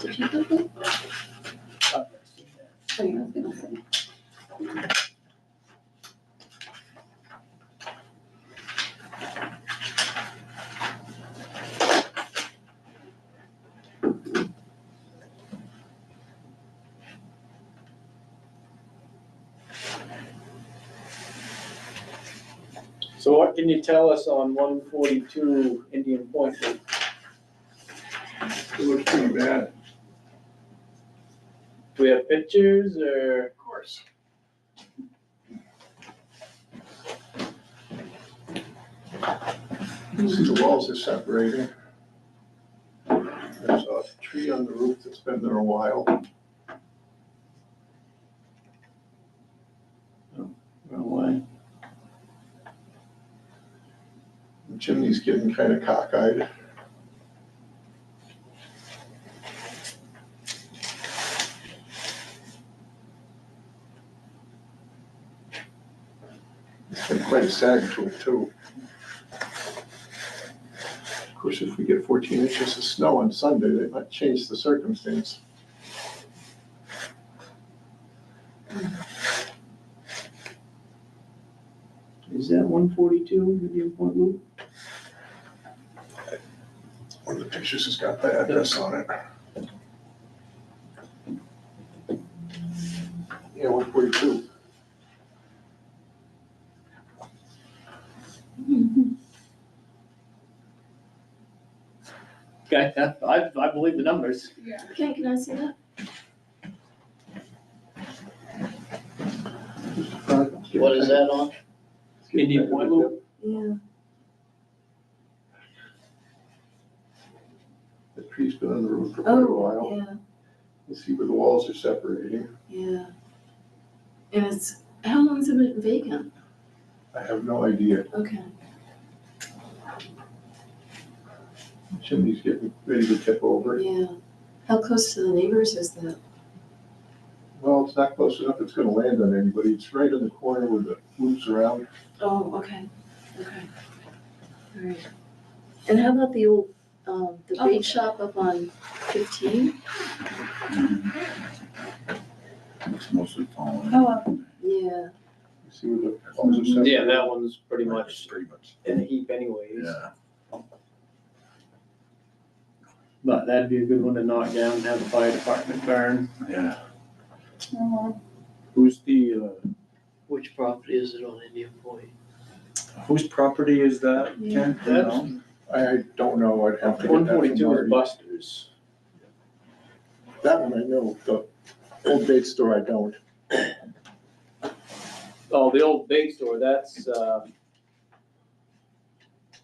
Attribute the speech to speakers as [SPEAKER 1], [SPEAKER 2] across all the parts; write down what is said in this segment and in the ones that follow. [SPEAKER 1] Did you do that? Oh, yeah, I was gonna say.
[SPEAKER 2] So what can you tell us on one forty-two Indian Point? Road?
[SPEAKER 3] It looks pretty bad.
[SPEAKER 2] Do we have pictures or?
[SPEAKER 3] Of course. See, the walls are separating. There's a tree on the roof that's been there a while.
[SPEAKER 2] Why?
[SPEAKER 3] The chimney's getting kind of cockeyed. It's got quite a sag to it too. Of course, if we get fourteen inches of snow on Sunday, that might change the circumstance.
[SPEAKER 2] Is that one forty-two Indian Point Loop?
[SPEAKER 3] One of the pictures has got the address on it. Yeah, one forty-two.
[SPEAKER 2] Okay, I, I believe the numbers.
[SPEAKER 1] Okay, can I see that?
[SPEAKER 4] What is that on?
[SPEAKER 2] Indian Point Loop?
[SPEAKER 1] Yeah.
[SPEAKER 3] The tree's been on the roof for quite a while.
[SPEAKER 1] Oh, yeah,
[SPEAKER 3] You see where the walls are separating.
[SPEAKER 1] yeah. And it's, how long has it been vacant?
[SPEAKER 3] I have no idea.
[SPEAKER 1] Okay.
[SPEAKER 3] Chimney's getting ready to tip over.
[SPEAKER 1] Yeah. How close to the neighbors is that?
[SPEAKER 3] Well, it's not close enough. It's gonna land on anybody. It's right in the corner where the roof's around.
[SPEAKER 1] Oh, okay, okay. All right. And how about the old, um, the bait shop up on fifteen?
[SPEAKER 5] It's mostly fallen.
[SPEAKER 1] Oh, Yeah,
[SPEAKER 3] You see where the walls are separating?
[SPEAKER 2] Yeah, that one's pretty much
[SPEAKER 5] Pretty much,
[SPEAKER 2] in a heap anyways.
[SPEAKER 5] yeah.
[SPEAKER 2] But that'd be a good one to knock down and have the fire department burn.
[SPEAKER 5] Yeah.
[SPEAKER 1] Uh-huh.
[SPEAKER 2] Who's the, uh,
[SPEAKER 4] Which property is it on Indian Point?
[SPEAKER 5] Whose property is that, Ken? Do you
[SPEAKER 2] That's-
[SPEAKER 5] know?
[SPEAKER 3] I don't know. I'd have to get
[SPEAKER 2] one
[SPEAKER 3] that from
[SPEAKER 2] forty-two is
[SPEAKER 3] Marty.
[SPEAKER 2] Buster's.
[SPEAKER 3] That one I know. The old bait store I don't.
[SPEAKER 2] Oh, the old big store, that's, um,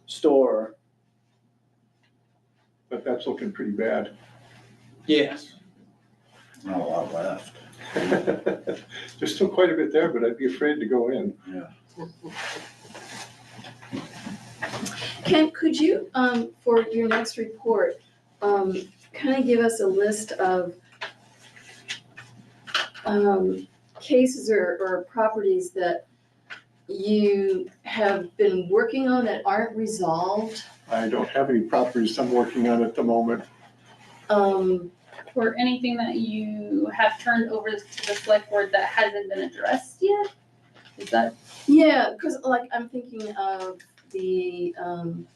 [SPEAKER 2] store.
[SPEAKER 3] But that's looking pretty bad.
[SPEAKER 2] Yes.
[SPEAKER 5] Not a lot left.
[SPEAKER 3] There's still quite a bit there, but I'd be afraid to go in.
[SPEAKER 1] Ken, could you, um, for your next report, um, kind of give us a list of um, cases or, or properties that you have been working on that aren't resolved?
[SPEAKER 3] I don't have any properties I'm working on at the moment.
[SPEAKER 1] Um,
[SPEAKER 6] or anything that you have turned over to the select board that hasn't been addressed yet? Is that,
[SPEAKER 1] yeah, because like, I'm thinking of the, um,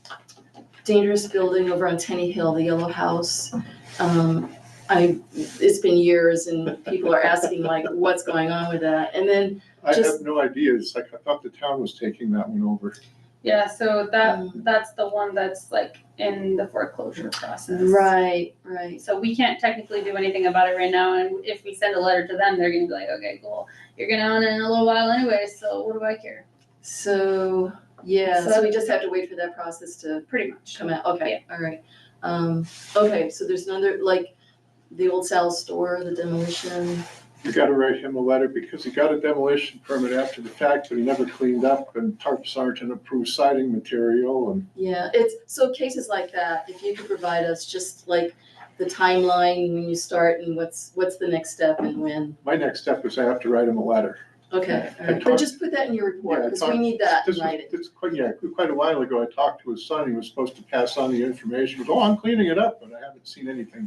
[SPEAKER 1] dangerous building over on Tenny Hill, the yellow house. Um, I, it's been years and people are asking like, what's going on with that? And then
[SPEAKER 3] I have
[SPEAKER 1] Just-
[SPEAKER 3] no idea. It's like I thought the town was taking that one over.
[SPEAKER 6] yeah, so that,
[SPEAKER 1] Mm.
[SPEAKER 6] that's the one that's like in the foreclosure process.
[SPEAKER 1] Right, right.
[SPEAKER 6] So we can't technically do anything about it right now, and if we send a letter to them, they're gonna be like, okay, cool, you're gonna own it in a little while anyway, so what do I care?
[SPEAKER 1] So, yeah, so
[SPEAKER 6] So-
[SPEAKER 1] we just have to wait for that process to
[SPEAKER 6] Pretty much.
[SPEAKER 1] come out, okay, all right. Um, okay, so there's another, like, the old Sal store, the demolition,
[SPEAKER 3] You gotta write him a letter because he got a demolition permit after the fact, but he never cleaned up and tarp sergeant approved siding material and
[SPEAKER 1] yeah, it's, so cases like that, if you could provide us just like the timeline, when you start and what's, what's the next step and when,
[SPEAKER 3] my next step is I have to write him a letter.
[SPEAKER 1] okay, all
[SPEAKER 3] I
[SPEAKER 1] right. But
[SPEAKER 3] talked-
[SPEAKER 1] just put that in your
[SPEAKER 3] Yeah, I
[SPEAKER 1] report, because we
[SPEAKER 3] talked-
[SPEAKER 1] need that in
[SPEAKER 3] This was,
[SPEAKER 1] writing.
[SPEAKER 3] it's quite, yeah, quite a while ago, I talked to his son, he was supposed to pass on the information, he goes, oh, I'm cleaning it up, but I haven't seen anything